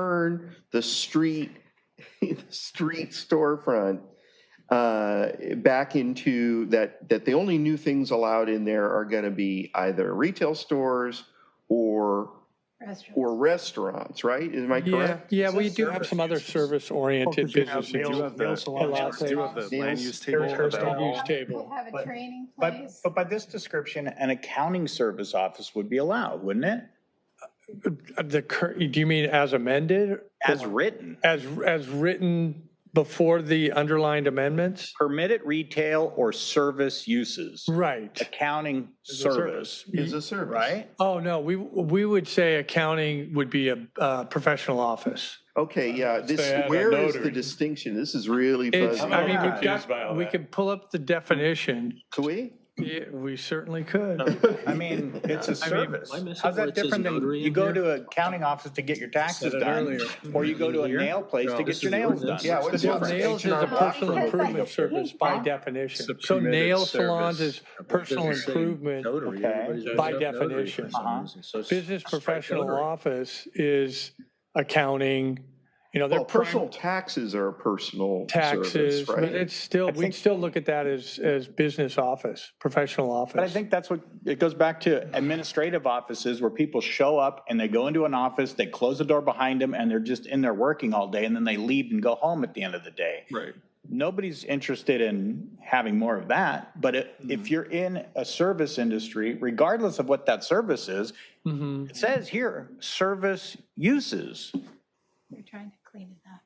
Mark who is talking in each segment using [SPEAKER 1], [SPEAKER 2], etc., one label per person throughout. [SPEAKER 1] turn, the street, the street storefront uh, back into that, that the only new things allowed in there are going to be either retail stores or, or restaurants, right? Am I
[SPEAKER 2] Yeah,
[SPEAKER 1] correct?
[SPEAKER 2] yeah,
[SPEAKER 3] It's a
[SPEAKER 2] we do have
[SPEAKER 3] service
[SPEAKER 2] some other
[SPEAKER 3] business.
[SPEAKER 2] service-oriented
[SPEAKER 4] Because you have
[SPEAKER 2] businesses.
[SPEAKER 4] nail-
[SPEAKER 2] do
[SPEAKER 4] nail
[SPEAKER 2] the
[SPEAKER 4] salons.
[SPEAKER 2] Pilates.
[SPEAKER 4] Do have the
[SPEAKER 3] Nails-
[SPEAKER 4] land use table
[SPEAKER 2] There's
[SPEAKER 4] about-
[SPEAKER 2] no use table.
[SPEAKER 5] Have a
[SPEAKER 3] But-
[SPEAKER 5] training
[SPEAKER 3] But,
[SPEAKER 5] place.
[SPEAKER 3] but by this description, an accounting service office would be allowed, wouldn't it?
[SPEAKER 2] The, cur- do you mean as amended,
[SPEAKER 3] As written,
[SPEAKER 2] as, as written before the underlined amendments?
[SPEAKER 3] permitted retail or service uses,
[SPEAKER 2] Right.
[SPEAKER 3] accounting service,
[SPEAKER 1] Is a service.
[SPEAKER 3] right?
[SPEAKER 2] Oh, no, we, we would say accounting would be a uh, professional office.
[SPEAKER 1] Okay, yeah,
[SPEAKER 2] Uh,
[SPEAKER 1] this,
[SPEAKER 6] Say add a
[SPEAKER 1] where is the
[SPEAKER 6] notary.
[SPEAKER 1] distinction? This is really
[SPEAKER 2] It's,
[SPEAKER 1] fuzzy.
[SPEAKER 2] I mean,
[SPEAKER 3] I'm
[SPEAKER 2] we've
[SPEAKER 6] confused by all
[SPEAKER 2] got, we
[SPEAKER 6] that.
[SPEAKER 2] could pull up the definition.
[SPEAKER 1] Could we?
[SPEAKER 2] Yeah, We certainly could.
[SPEAKER 3] I mean, it's a
[SPEAKER 7] I mean,
[SPEAKER 3] service.
[SPEAKER 7] am I missing
[SPEAKER 3] How's
[SPEAKER 7] where
[SPEAKER 3] that
[SPEAKER 7] it says
[SPEAKER 3] different than,
[SPEAKER 7] notary
[SPEAKER 3] you
[SPEAKER 7] in
[SPEAKER 3] go
[SPEAKER 7] here?
[SPEAKER 3] to an accounting office to get your taxes
[SPEAKER 7] Said it
[SPEAKER 3] done,
[SPEAKER 7] earlier.
[SPEAKER 3] or you go to a
[SPEAKER 7] Here?
[SPEAKER 3] nail place
[SPEAKER 7] No,
[SPEAKER 3] to
[SPEAKER 7] this
[SPEAKER 3] get
[SPEAKER 7] is
[SPEAKER 3] your
[SPEAKER 7] the
[SPEAKER 3] nails done.
[SPEAKER 7] ordinance.
[SPEAKER 1] Yeah, what's
[SPEAKER 2] So Nails is a
[SPEAKER 1] H&R Block
[SPEAKER 2] personal
[SPEAKER 1] or what?
[SPEAKER 2] improvement service by definition.
[SPEAKER 7] It's a
[SPEAKER 2] So
[SPEAKER 7] permitted
[SPEAKER 2] nail
[SPEAKER 7] service.
[SPEAKER 2] salons is
[SPEAKER 7] It
[SPEAKER 2] personal
[SPEAKER 7] doesn't say
[SPEAKER 2] improvement.
[SPEAKER 7] notary.
[SPEAKER 3] Okay.
[SPEAKER 7] Everybody's written
[SPEAKER 2] By
[SPEAKER 7] up notary
[SPEAKER 2] definition.
[SPEAKER 7] for some
[SPEAKER 3] Uh-huh.
[SPEAKER 7] reason. So it's
[SPEAKER 2] Business
[SPEAKER 7] strike
[SPEAKER 2] professional
[SPEAKER 7] notary.
[SPEAKER 2] office is accounting, you know, they're
[SPEAKER 1] Well, personal
[SPEAKER 2] personal
[SPEAKER 1] taxes are a personal
[SPEAKER 2] taxes,
[SPEAKER 1] service, right?
[SPEAKER 2] but it's still, we'd
[SPEAKER 3] think-
[SPEAKER 2] still look at that as, as business office, professional
[SPEAKER 3] But I
[SPEAKER 2] office.
[SPEAKER 3] think that's what, it goes back to administrative offices where people show up and they go into an office, they close the door behind them and they're just in there working all day and then they leave and go home at the end of the day.
[SPEAKER 7] Right.
[SPEAKER 3] Nobody's interested in having more of that, but i-
[SPEAKER 2] Mm-hmm.
[SPEAKER 3] if you're in a service industry, regardless of what that service is,
[SPEAKER 2] Mhm.
[SPEAKER 3] it says here, service uses.
[SPEAKER 5] They're trying to clean it up.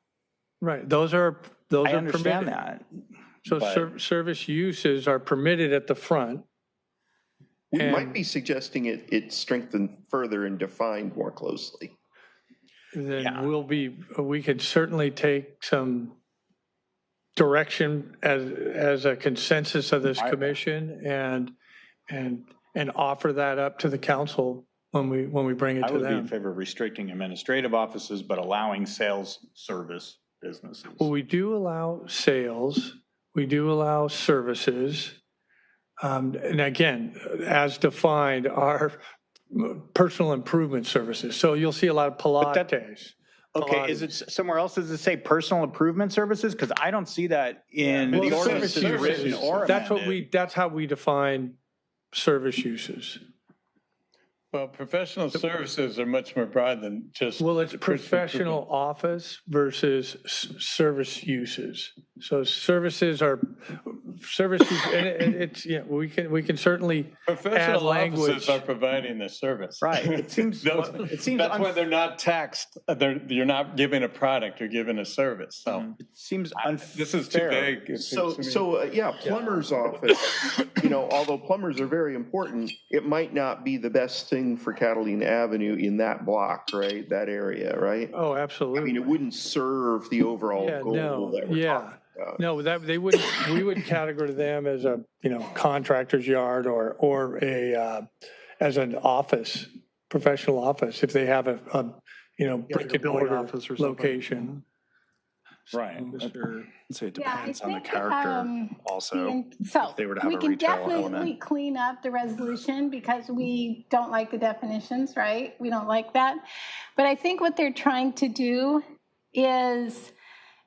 [SPEAKER 2] Right, those are, those
[SPEAKER 3] I
[SPEAKER 2] are
[SPEAKER 3] understand
[SPEAKER 2] permitted.
[SPEAKER 3] that.
[SPEAKER 2] So
[SPEAKER 3] but-
[SPEAKER 2] ser- service uses are permitted at the front.
[SPEAKER 1] We might
[SPEAKER 2] And-
[SPEAKER 1] be suggesting it, it strengthened further and defined more closely.
[SPEAKER 3] Yeah.
[SPEAKER 2] then we'll be, we could certainly take some direction as, as a consensus of this
[SPEAKER 3] I-
[SPEAKER 2] commission and, and, and offer that up to the council when we, when we bring it
[SPEAKER 3] I
[SPEAKER 2] to
[SPEAKER 3] would be in
[SPEAKER 2] them.
[SPEAKER 3] favor of restricting administrative offices, but allowing sales service businesses.
[SPEAKER 2] Well, we do allow sales, we do allow services. Um, And again, as defined, are personal improvement services. So you'll see a lot of
[SPEAKER 3] that-
[SPEAKER 2] Pilates.
[SPEAKER 3] Okay, is it, s- somewhere else, does it say personal improvement services? Because I don't see that in
[SPEAKER 2] Well,
[SPEAKER 3] the
[SPEAKER 2] service
[SPEAKER 3] ordinance that's
[SPEAKER 2] uses,
[SPEAKER 3] written or
[SPEAKER 2] That's what
[SPEAKER 3] amended.
[SPEAKER 2] we, that's how we define service uses.
[SPEAKER 6] Well, professional services are much more broad than just.
[SPEAKER 2] Well, it's professional office versus s- service uses. So services are, services, and it- and it's, yeah, we can, we can certainly,
[SPEAKER 6] Professional
[SPEAKER 2] add language.
[SPEAKER 6] offices are providing the service.
[SPEAKER 3] Right, it seems-
[SPEAKER 6] Those-
[SPEAKER 3] it seems
[SPEAKER 6] That's why
[SPEAKER 3] unf-
[SPEAKER 6] they're not taxed. They're, you're not giving a product, you're giving a service. So
[SPEAKER 7] Mm-hmm.
[SPEAKER 3] It Seems
[SPEAKER 6] this is too
[SPEAKER 3] unfair.
[SPEAKER 6] vague. It's-
[SPEAKER 1] So,
[SPEAKER 6] it's-
[SPEAKER 1] so, uh, yeah, plumber's office, you know, although plumbers are very important, it might not be the best thing for Catalina Avenue in that block, right? That area, right?
[SPEAKER 2] oh,
[SPEAKER 1] I mean, it
[SPEAKER 2] absolutely.
[SPEAKER 1] wouldn't serve the overall
[SPEAKER 2] Yeah,
[SPEAKER 1] goal
[SPEAKER 2] no,
[SPEAKER 1] that we're
[SPEAKER 2] yeah.
[SPEAKER 1] talking about.
[SPEAKER 2] No, that, they would, we would categorize them as a, you know, contractor's yard or, or a, uh, as an office, professional office, if they have a, a, you know,
[SPEAKER 4] Yeah, like a
[SPEAKER 2] brick and
[SPEAKER 4] billing
[SPEAKER 2] mortar
[SPEAKER 4] office or something.
[SPEAKER 2] location.
[SPEAKER 3] Right.
[SPEAKER 7] Mr.
[SPEAKER 4] So it
[SPEAKER 5] Yeah, I
[SPEAKER 4] depends on the
[SPEAKER 5] think,
[SPEAKER 4] character
[SPEAKER 5] um,
[SPEAKER 4] also.
[SPEAKER 5] And So
[SPEAKER 4] they were to have
[SPEAKER 5] we
[SPEAKER 4] a
[SPEAKER 5] can
[SPEAKER 4] retail element.
[SPEAKER 5] definitely clean up the resolution because we don't like the definitions, right? We don't like that. But I think what they're trying to do is,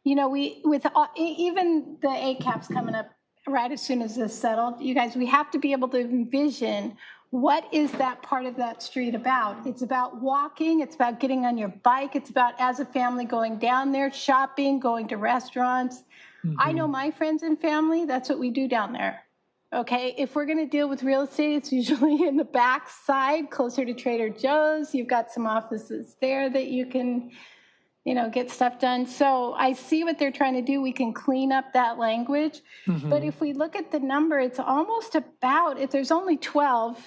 [SPEAKER 5] you know, we, with, all- e- even the ACAP's coming up right as soon as this settled, you guys, we have to be able to envision what is that part of that street about? It's about walking, it's about getting on your bike, it's about as a family going down there, shopping, going to restaurants.
[SPEAKER 4] Mm-hmm.
[SPEAKER 5] I know my friends and family, that's what we do down there. Okay, if we're gonna deal with real estate, it's usually in the back side, closer to Trader Joe's. You've got some offices there that you can, you know, get stuff done. So I see what they're trying to do. We can clean up that language.
[SPEAKER 2] Mm-hmm.
[SPEAKER 5] But if we look at the number, it's almost about, if there's only 12,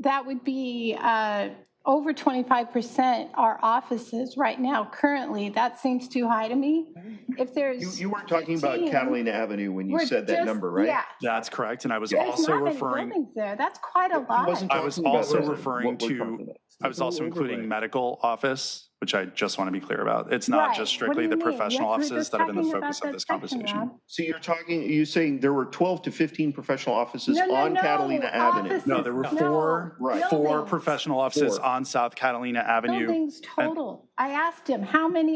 [SPEAKER 5] that would be uh, over 25% are offices right now currently. That seems too high to me. If
[SPEAKER 1] You,
[SPEAKER 5] there's.
[SPEAKER 1] you weren't talking about
[SPEAKER 5] 15,
[SPEAKER 1] Catalina Avenue when you
[SPEAKER 5] we're
[SPEAKER 1] said that
[SPEAKER 5] just-
[SPEAKER 1] number, right?
[SPEAKER 5] Yeah.
[SPEAKER 4] That's correct, and I was
[SPEAKER 5] There's
[SPEAKER 4] also
[SPEAKER 5] not many
[SPEAKER 4] referring,
[SPEAKER 5] buildings There, that's quite a
[SPEAKER 1] He
[SPEAKER 5] lot.
[SPEAKER 1] wasn't
[SPEAKER 4] I was
[SPEAKER 1] talking about
[SPEAKER 4] also
[SPEAKER 1] what we're
[SPEAKER 4] referring
[SPEAKER 1] talking
[SPEAKER 4] to-
[SPEAKER 1] about.
[SPEAKER 4] I was also including medical office which I just want to be clear about. It's not
[SPEAKER 5] Right. What
[SPEAKER 4] just
[SPEAKER 5] do
[SPEAKER 4] strictly
[SPEAKER 5] you
[SPEAKER 4] the
[SPEAKER 5] mean?
[SPEAKER 4] professional
[SPEAKER 5] Yes, we're
[SPEAKER 4] offices
[SPEAKER 5] just
[SPEAKER 4] that have been the
[SPEAKER 5] talking
[SPEAKER 4] focus
[SPEAKER 5] about
[SPEAKER 4] of this
[SPEAKER 5] that section,
[SPEAKER 4] conversation.
[SPEAKER 5] Rob.
[SPEAKER 1] So you're talking, you're saying there were 12 to 15 professional offices
[SPEAKER 5] No, no,
[SPEAKER 1] on
[SPEAKER 5] no,
[SPEAKER 1] Catalina Avenue.
[SPEAKER 5] offices.
[SPEAKER 4] No, there were
[SPEAKER 5] No,
[SPEAKER 4] four,
[SPEAKER 1] Right.
[SPEAKER 4] four
[SPEAKER 5] buildings.
[SPEAKER 4] professional offices
[SPEAKER 1] Four.
[SPEAKER 4] on South Catalina Avenue.
[SPEAKER 5] Buildings total. I asked him, how many